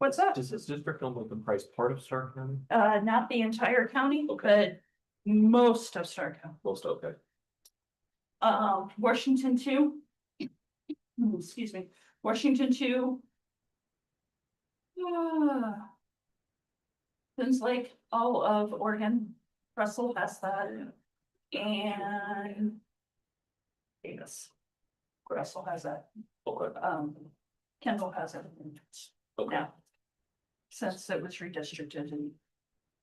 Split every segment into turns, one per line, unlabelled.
What's that?
Does this district only comprise part of Stark County?
Uh, not the entire county, but
Okay.
most of Stark County.
Most, okay.
Uh, Washington two. Hmm, Excuse me, Washington two. Ah. Things like all of Oregon, Russell has that. And. Davis. Russell has that,
Okay.
um, Kendall has it.
Okay.
Now. Since it was redistricted in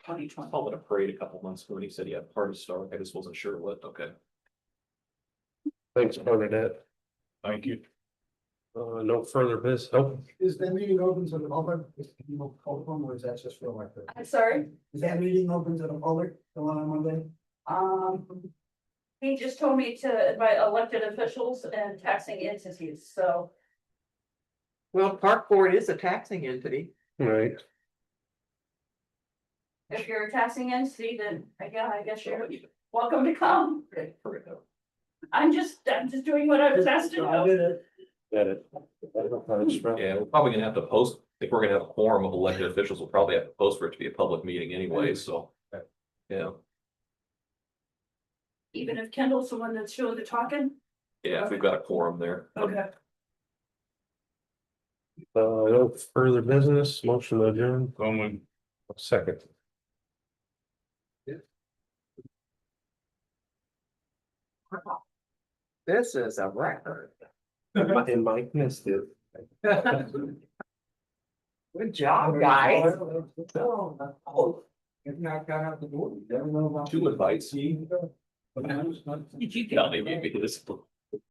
twenty
I
twenty.
called it a parade a couple months ago and he said he had part of Stark. I just wasn't sure what. Okay.
Thanks, Bernadette.
Thank you.
Uh, no further business. Oh,
Is that meeting open to the public, is it people call them, or is that just for elected?
I'm sorry?
Is that meeting open to the public, the one on Monday?
Um, he just told me to invite elected officials and taxing entities, so.
Well, park board is a taxing entity.
right.
If you're a taxing entity, then again, I guess you're welcome to come. I'm just, I'm just doing what I was asked to
I
do.
did it.
Got it.
Yeah, we're probably gonna have to post, if we're gonna have a quorum of elected officials, we'll probably have to post for it to be a public meeting anyway,
Mm.
so. Yeah,
Even if Kendall's the one that's doing the talking.
yeah, if we've got a quorum there.
Uh, no further business, motion adjourned. Going. Second.
This is a record.
And Mike missed it.
Good job, Oh, guys.
Oh, If not, got out the door, you never know about.
Two invites.
See, you go. But I was not-
Did you? Not maybe, maybe this.